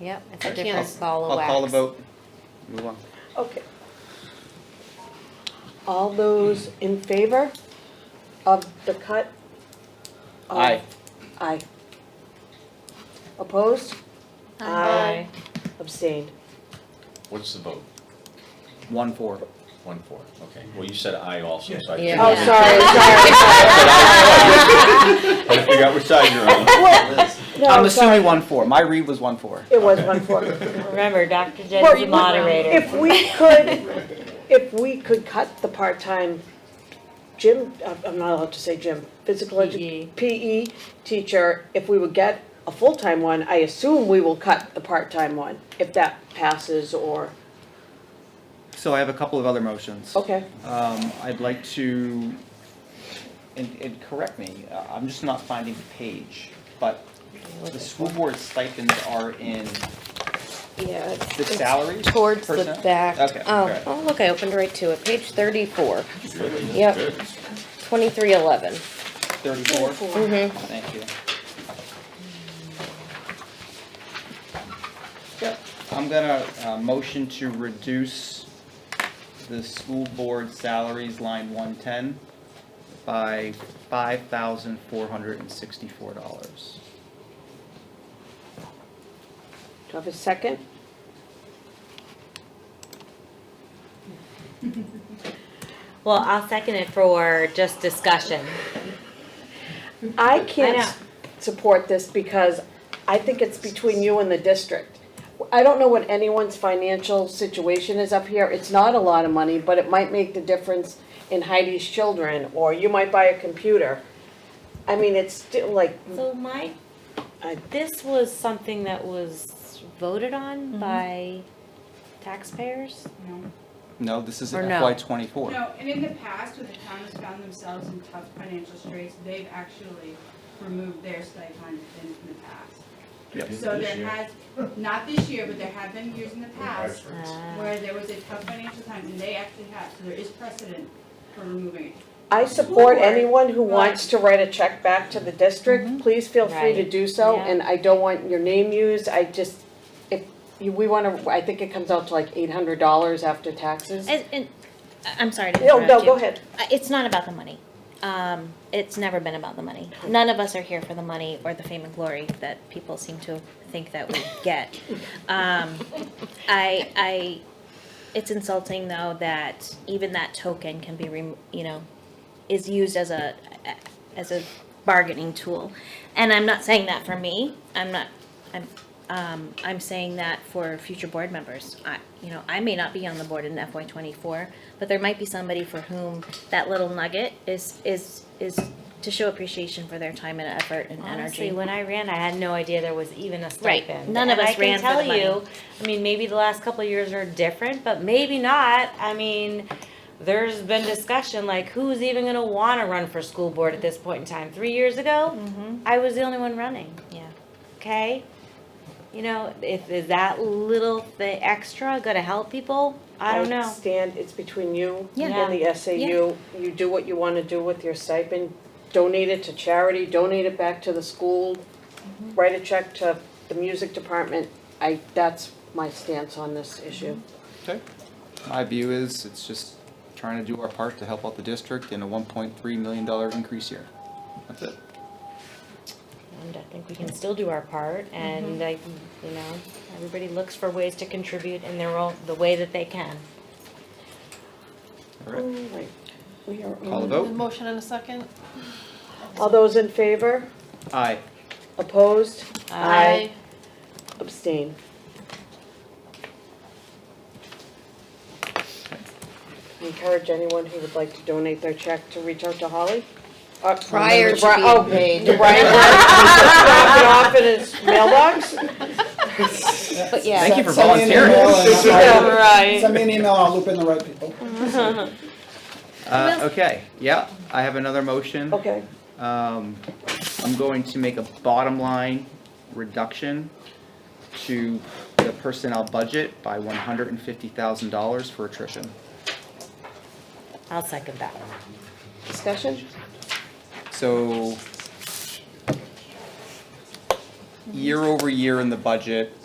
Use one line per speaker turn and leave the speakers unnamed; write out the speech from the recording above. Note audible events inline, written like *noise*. Yep, it's a
I can't-
different ball
I'll
of wax.
call the vote. Move on.
Okay. All those in favor of the cut? of-
Aye.
Aye. Opposed?
Aye.
Abstained.
What's the vote?
One, four.
One, four, okay. Well, you said aye also, so I.
Yeah.
Oh,
couldn't-
*laughs*
sorry, sorry, sorry.
*laughs* I figured out which side you're on.
No,
I'm
sorry.
assuming one, four. My read was one, four.
It was one four.
Remember, Dr.
Well,
Jen's the
you-
moderator.
If we could, if we could cut the part-time gym, I'm- I'm not allowed to say gym, physical
PE.
E.
edu, PE teacher, if we would get a full-time one, I assume we will cut the part-time one, if that passes or,
So I have a couple of other motions.
okay,
Um, I'd like to, and, and correct me, uh, I'm just not finding the page, but the school board stipends are in,
*laughs*
Yeah, it's-
The
it's
salaries
Towards the
personnel?
back.
Okay,
Oh,
Um,
alright.
oh, look, I opened right to it, page thirty-four,
Good,
Yep.
good.
twenty-three eleven.
thirty-four. Thank you. Yep, I'm gonna, uh, motion to reduce the school board salaries line one-ten by five thousand four hundred and sixty-four dollars.
do I have a second?
Well, I'll second it for just discussion.
I
I
can't
know.
support this because I think it's between you and the district. I don't know what anyone's financial situation is up here, it's not a lot of money, but it might make the difference in Heidi's children, or you might buy a computer. I mean, it's still like,
So my,
uh,
I-
this was something that was voted on by taxpayers?
No,
No, this is
Or
an
no.
FY twenty-four.
No, and in the past, when the town has found themselves in tough financial straits, they've actually removed their stipend in the past. So
This
there
year.
has, not this year, but there have been years in the past
Uh,
where there was a tough financial time, and they actually have, so there is precedent for removing it.
I support
Sure,
anyone who
but-
wants to write a check back to the district, please feel free to
Mm-hmm. Right.
do so,
Yeah.
and I don't want your name used, I just, if, you- we wanna, I think it comes out to like eight hundred dollars after taxes.
And, and, I- I'm sorry to
No,
interrupt you.
no, go ahead.
Uh, It's not about the money. Um, it's never been about the money. None of us are here for the money or the fame and glory that people seem to think that we get. Um, I, I, it's insulting though that even that token can be, rem- you know, is used as a, as a bargaining tool. And I'm not saying that for me. I'm not, I'm, um, I'm saying that for future board members. I, you know, I may not be on the board in FY twenty-four, but there might be somebody for whom that little nugget is, is, is to show appreciation for their time and effort and energy.
Honestly, when I ran, I had no idea there was even a
Right.
stipend.
None of
And
us ran for the
I can tell
money.
you, I mean, maybe the last couple of years are different, but maybe not. I mean, there's been discussion, like, who's even gonna wanna run for school board at this point in time? Three years ago, I was the only one running.
Mm-hmm. Yeah.
okay? You know, if, is that little, the extra gonna help people? I don't know.
stand, it's between you
Yeah.
and the SAU. You do what you wanna do with your stipend, donate it to charity, donate it back to the school, write a check to the music department. I, that's my stance on this issue.
Okay. My view is, it's just trying to do our part to help out the district in a one point three million dollar increase year. That's it.
And I think we can still do our part
Mm-hmm.
and like, you know, everybody looks for ways to contribute in their own, the way that they can.
All right,
Right. We are
call the
on.
vote.
Motion and a second?
All those in favor?
Aye.
Opposed? Abstain. Encourage anyone who would like to donate their check to reach out to Holly. Uh,
Prior to
Bri-
being
oh,
paid.
To Brian, drop it *laughs* off in his mailbox?
But yeah.
Thank you for
Send me an email
volunteering.
and I'll-
Right.
Send me an email and I'll loop in the right people.
Uh, okay, yeah, I have another motion.
Okay,
Um, I'm going to make a bottom line reduction to the personnel budget by one hundred and fifty thousand dollars for attrition.
I'll second that.
discussion?
So year over year in the budget,